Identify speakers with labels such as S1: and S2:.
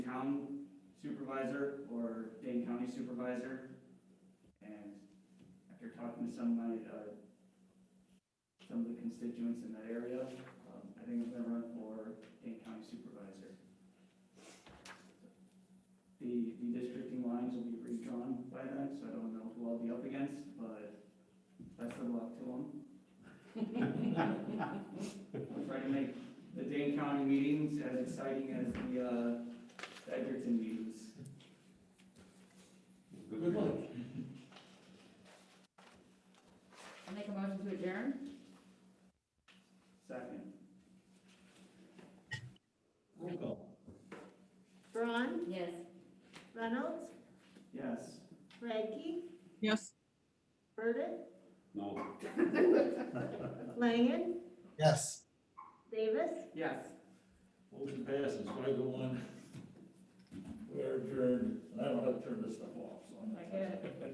S1: town supervisor or Dane County supervisor. And after talking to some of my, uh, some of the constituents in that area, um, I think I'm gonna run for Dane County supervisor. The, the districting lines will be redrawn by then, so I don't know who I'll be up against, but best of luck to them. I'll try to make the Dane County meetings as exciting as the, uh, the Edgerton meetings.
S2: Good luck.
S3: I'll make a motion to adjourn.
S1: Second,
S2: Roll call.
S4: Braun,
S3: Yes.
S4: Reynolds,
S1: yes.
S4: Radke,
S5: Yes.
S4: Burden,
S2: No.
S4: Langen,
S6: Yes.
S4: Davis.
S1: Yes.
S2: Motion passes, five to one. We're adjourned. I don't have to turn this stuff off, so I'm not.
S3: I get it.